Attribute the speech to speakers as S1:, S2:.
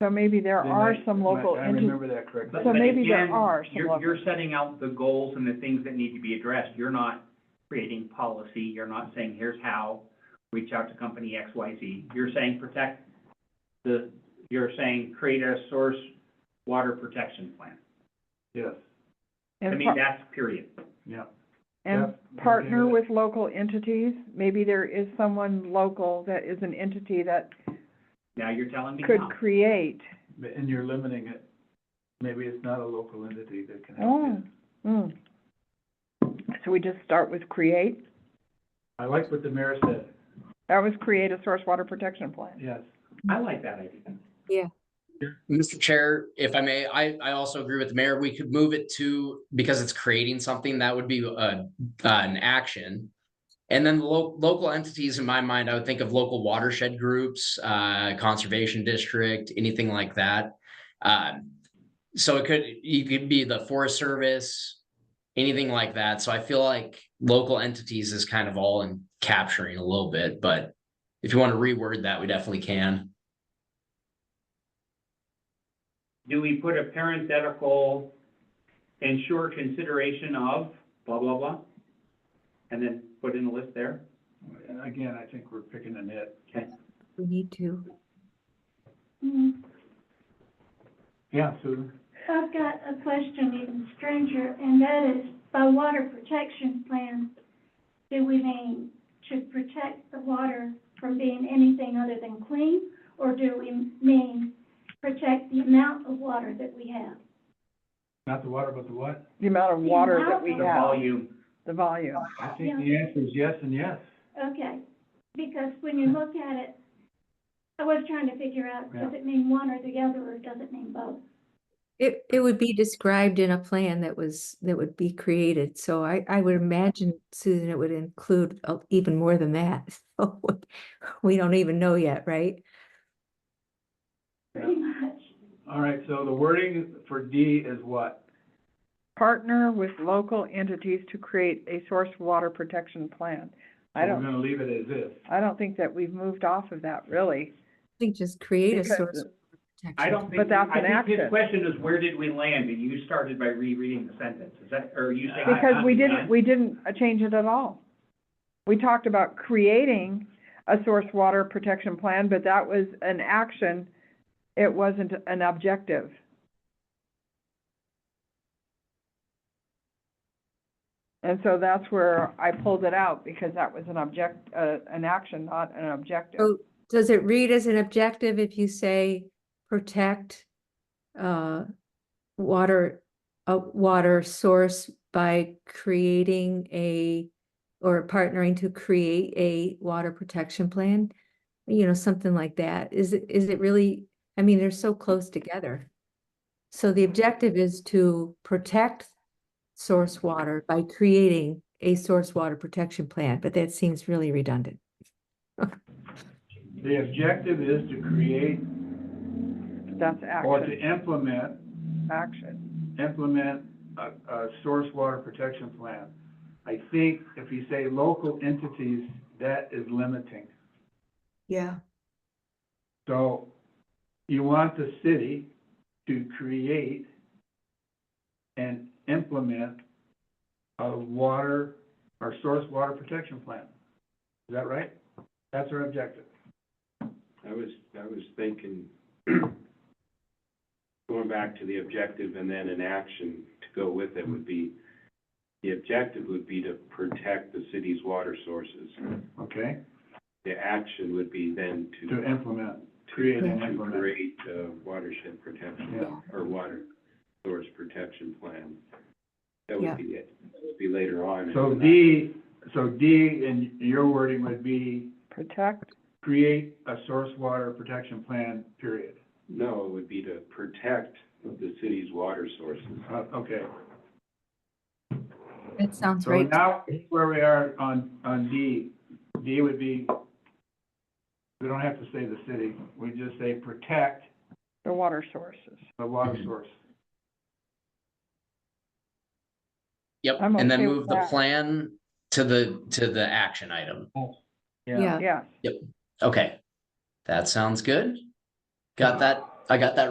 S1: So maybe there
S2: Didn't
S1: are
S2: I-
S1: some
S2: am I-
S1: local
S2: I
S1: entities.
S2: remember that correctly.
S1: So
S3: But
S1: maybe there
S3: again,
S1: are some
S3: You're,
S1: levels.
S3: you're setting out the goals and the things that need to be addressed. You're not creating policy. You're not saying, here's how, reach out to company X, Y, Z. You're saying protect the, you're saying create a source water protection plan.
S2: Yes,
S3: I
S1: and
S3: mean,
S1: par-
S3: that's period.
S2: yeah.
S1: And
S2: Yep, I'm
S1: partner
S2: hearing it.
S1: with local entities. Maybe there is someone local that is an entity that
S3: Now you're telling me
S1: could
S3: how.
S1: create.
S2: And you're limiting it. Maybe it's not a local entity that can help
S1: Oh,
S2: you.
S1: mm. So we just start with create.
S2: I like what the mayor said,
S1: That was create a source water protection plan.
S2: yes.
S3: I like that idea.
S4: Mr. Chair, if I may, I, I also agree with the mayor. We could move it to, because it's creating something that would be uh an action. And then lo- local entities, in my mind, I would think of local watershed groups, uh, conservation district, anything like that. Um so it could, you could be the Forest Service, anything like that. So I feel like local entities is kind of all in capturing a little bit, but if you want to reword that, we definitely can.
S3: Do we put a parenthetical, ensure consideration of blah, blah, blah? And then put in a list there?
S2: And again, I think we're picking a nit.
S5: We need to.
S6: Mm.
S2: Yeah, Susan?
S6: I've got a question even stranger, and that is, by water protection plan, do we mean to protect the water from being anything other than clean? Or do we mean protect the amount of water that we have?
S2: Not the water, but the what?
S1: The amount of water that we
S3: The
S1: have,
S3: volume
S1: the volume.
S2: I think the answer is yes and yes.
S6: Okay, because when you look at it, I was trying to figure out, does it mean one or the other, or does it mean both?
S5: It, it would be described in a plan that was, that would be created, so I, I would imagine, Susan, it would include uh, even more than that. So We don't even know yet, right?
S6: Pretty much.
S2: All right, so the wording for D is what?
S1: Partner with local entities to create a source water protection plan. I
S2: We're
S1: don't,
S2: gonna leave it as is.
S1: I don't think that we've moved off of that, really.
S5: I think just create a
S1: Because-
S5: source. of protection.
S3: I don't think.
S1: But that's
S3: I
S1: an
S3: think
S1: action.
S3: His question is, where did we land? And you started by rereading the sentence. Is that, or are you saying?
S1: Because we didn't, we didn't uh, change it at all. We talked about creating a source water protection plan, but that was an action. It wasn't an objective. And so that's where I pulled it out because that was an object, uh, an action, not an objective.
S5: Oh, Does it read as an objective if you say protect uh water, a water source by creating a or partnering to create a water protection plan? You know, something like that. Is it, is it really, I mean, they're so close together. So the objective is to protect source water by creating a source water protection plan, but that seems really redundant.
S2: The objective is to create
S1: That's
S2: or to
S1: action,
S2: implement,
S1: action.
S2: implement a, a source water protection plan. I think if you say local entities, that is limiting.
S5: Yeah.
S2: So you want the city to create and implement a water or source water protection plan. Is that right? That's our objective.
S7: I was, I was thinking, going back to the objective and then an action to go with it would be, the objective would be to protect the city's water sources.
S2: Okay,
S7: The action would be then
S2: to
S7: to,
S2: implement,
S7: to
S2: create and implement.
S7: create a watershed protection,
S2: Yeah.
S7: or water source protection plan. That
S5: Yeah.
S7: would be it, that would be later on.
S2: So D, so D in your wording would be
S1: Protect,
S2: create a source water protection plan, period.
S7: No, it would be to protect the city's water sources.
S2: Uh, okay.
S5: That sounds
S2: So
S5: right.
S2: now, where we are on, on D, D would be, we don't have to say the city, we just say protect
S1: the water sources.
S2: the water
S7: Mm-hmm.
S2: source.
S4: Yep,
S1: I'm
S4: and then
S1: okay with
S4: move the
S1: that.
S4: plan to the, to the action item.
S5: Yeah.
S1: Yes.
S4: Okay, that sounds good. Got that I got that